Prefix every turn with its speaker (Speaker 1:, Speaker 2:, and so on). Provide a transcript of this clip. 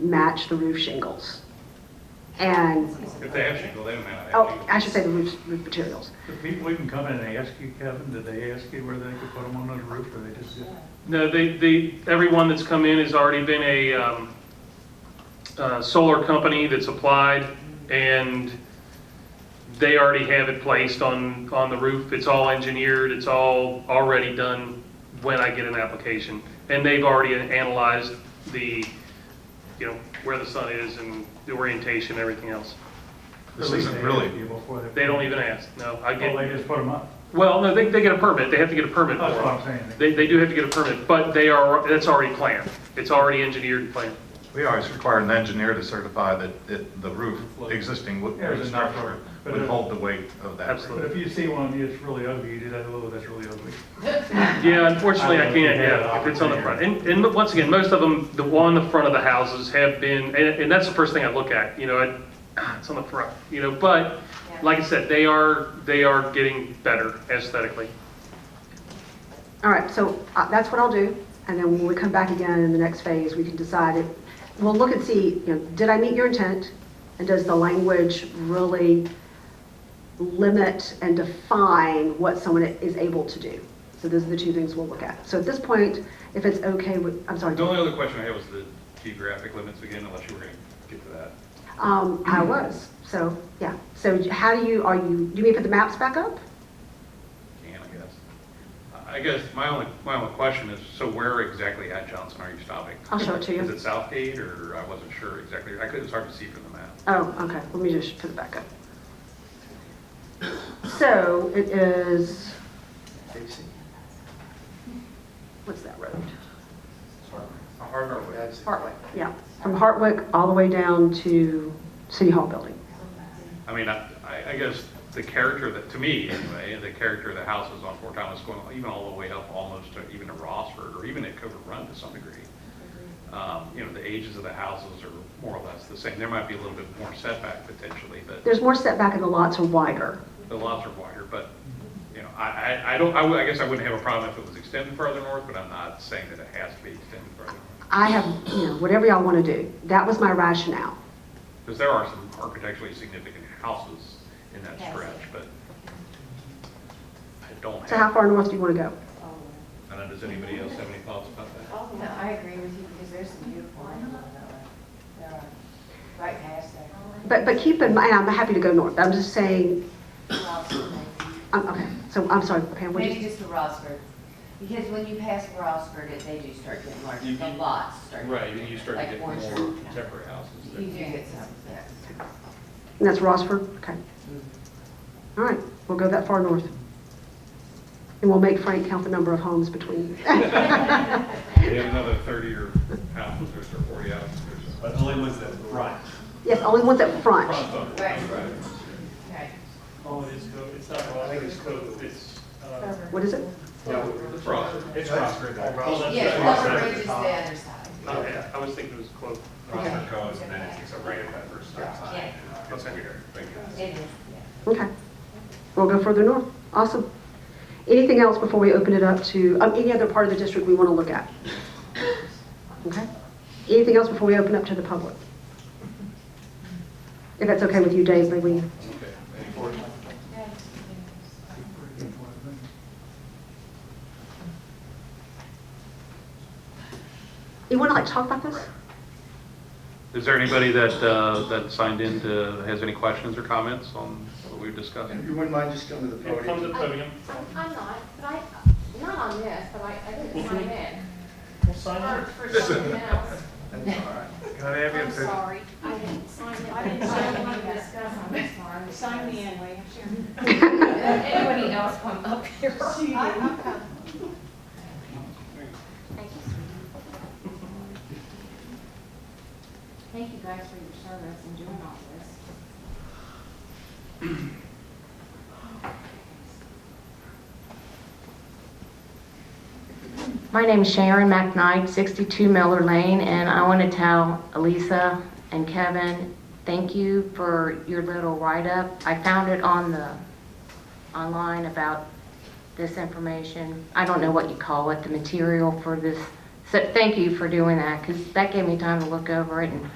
Speaker 1: match the roof shingles. And,
Speaker 2: If they ask you, go them out.
Speaker 1: oh, I should say the roof, roof materials.
Speaker 3: The people even come in and they ask you, Kevin, did they ask you where they could put them on the roof, or they just did?
Speaker 4: No, they, they, everyone that's come in has already been a, um, uh, solar company that's applied, and they already have it placed on, on the roof. It's all engineered, it's all already done when I get an application. And they've already analyzed the, you know, where the sun is and the orientation, and everything else.
Speaker 2: This
Speaker 3: At least
Speaker 2: isn't
Speaker 3: they
Speaker 2: really-
Speaker 3: ask you Before they.
Speaker 4: They don't even ask, no, I
Speaker 3: Well, they
Speaker 4: get,
Speaker 3: just put them up.
Speaker 4: well, no, they, they get a permit, they have to get a permit
Speaker 3: That's
Speaker 4: for it.
Speaker 3: what I'm saying.
Speaker 4: They, they do have to get a permit, but they are, that's already planned. It's already engineered and planned.
Speaker 2: We always require an engineer to certify that, that the roof, existing wood
Speaker 3: Yeah, there's enough
Speaker 2: structure
Speaker 3: for it.
Speaker 2: would hold the weight of that.
Speaker 4: Absolutely.
Speaker 3: But if you see one that's really ugly, you do that, oh, that's really ugly.
Speaker 4: Yeah, unfortunately, I
Speaker 3: I don't know if
Speaker 4: can't,
Speaker 3: you had
Speaker 4: yeah,
Speaker 3: an
Speaker 4: if it's on the front. And, and look, once again, most of them, the one on the front of the houses have been, and, and that's the first thing I look at, you know, I, "Ah, it's on the front, you know, but, like I said, they are, they are getting better aesthetically.
Speaker 1: All right, so uh, that's what I'll do, and then when we come back again in the next phase, we can decide it. We'll look and see, you know, did I meet your intent? And does the language really limit and define what someone is able to do? So those are the two things we'll look at. So at this point, if it's okay with, I'm sorry,
Speaker 2: The only other question I had was the geographic limits again, unless you were going to get to that.
Speaker 1: um, I was, so, yeah. So how do you, are you, do you mean put the maps back up?
Speaker 2: Can, I guess. I guess my only, my only question is, so where exactly at Johnson are you stopping?
Speaker 1: I'll show it to you.
Speaker 2: Is it Southgate, or I wasn't sure exactly, I couldn't, it's hard to see from the map.
Speaker 1: Oh, okay, let me just put it back up. So it is, what's that road? Hartwick, yeah, from Hartwick all the way down to City Hall building.
Speaker 2: I mean, I, I- I guess the character that, to me anyway, the character of the houses on Fort Thomas going even all the way up almost to even to Rossford or even at Covert Run to some degree. Um, You know, the ages of the houses are more or less the same. There might be a little bit more setback potentially, but
Speaker 1: There's more setback and the lots are wider.
Speaker 2: the lots are wider. But, you know, I, I, I don't, I would- I guess I wouldn't have a problem if it was extended further north, but I'm not saying that it has to be extended further north.
Speaker 1: I have, you know, whatever y'all want to do, that was my rationale.
Speaker 2: Because there are some architecturally significant houses in that stretch, but I don't have.
Speaker 1: So how far north do you want to go?
Speaker 2: I don't know, does anybody else have any thoughts about that?
Speaker 5: No, I agree with you because there's some beautiful ones on that one. Right past that.
Speaker 1: But, but keep in mind, I'm happy to go north, I'm just saying,
Speaker 5: Rosford,
Speaker 1: I'm, okay, so I'm sorry, Pam, what did
Speaker 5: Maybe Maybe
Speaker 1: you?
Speaker 5: just the Rosford, because when you pass Rosford, it- they do start getting larger,
Speaker 2: You-
Speaker 5: the
Speaker 2: you-
Speaker 5: lots start.
Speaker 2: and you start to
Speaker 5: Like
Speaker 2: get more
Speaker 5: Orchard.
Speaker 2: contemporary houses.
Speaker 5: You do
Speaker 2: there.
Speaker 5: get some, yes.
Speaker 1: And that's Rossford, okay. All right, we'll go that far north. And we'll make Frank count the number of homes between.
Speaker 2: They have another 30 or houses, or 40 houses or
Speaker 6: But only ones that run.
Speaker 1: Yes, only ones at front.
Speaker 2: something.
Speaker 5: Right. Right.
Speaker 6: Oh, it is code, it's not, I think it's code, it's, uh,
Speaker 1: What is it?
Speaker 2: It's Rossford.
Speaker 6: it's Rossford.
Speaker 5: Yes, Lower Bridge is the other side.
Speaker 4: I I was thinking it was close.
Speaker 6: Rossford goes, and then it takes a right at that first stop sign. It's weird.
Speaker 5: It is, yeah.
Speaker 1: Okay. We'll go further north. Awesome. Anything else before we open it up to, um, any other part of the district we want to look at? Okay. Anything else before we open up to the public? If that's okay with you, Dave, may we? You want to like talk about this?
Speaker 2: Is there anybody that, uh, that signed in to, has any questions or comments on what we've discussed?
Speaker 7: If you wouldn't mind just coming to the
Speaker 4: Come to
Speaker 7: podium.
Speaker 4: the podium.
Speaker 8: I'm not, but I, not on this, but I, I didn't sign in.
Speaker 6: We'll sign
Speaker 8: For,
Speaker 6: up.
Speaker 8: for something else.
Speaker 7: That's all right.
Speaker 3: Gotta have
Speaker 8: I'm
Speaker 3: your opinion.
Speaker 8: sorry. I didn't sign in. I didn't sign in to discuss, I'm sorry. Sign me in, William. Anybody else come up here? Thank you, sweetie. Thank you guys for your service and doing all this.
Speaker 9: My name's Sharon McKnight, 62 Miller Lane, and I want to tell Elisa and Kevin, thank you for your little write-up. I found it on the, online about this information. I don't know what you call it, the material for this. So thank you for doing that, because that gave me time to look over it and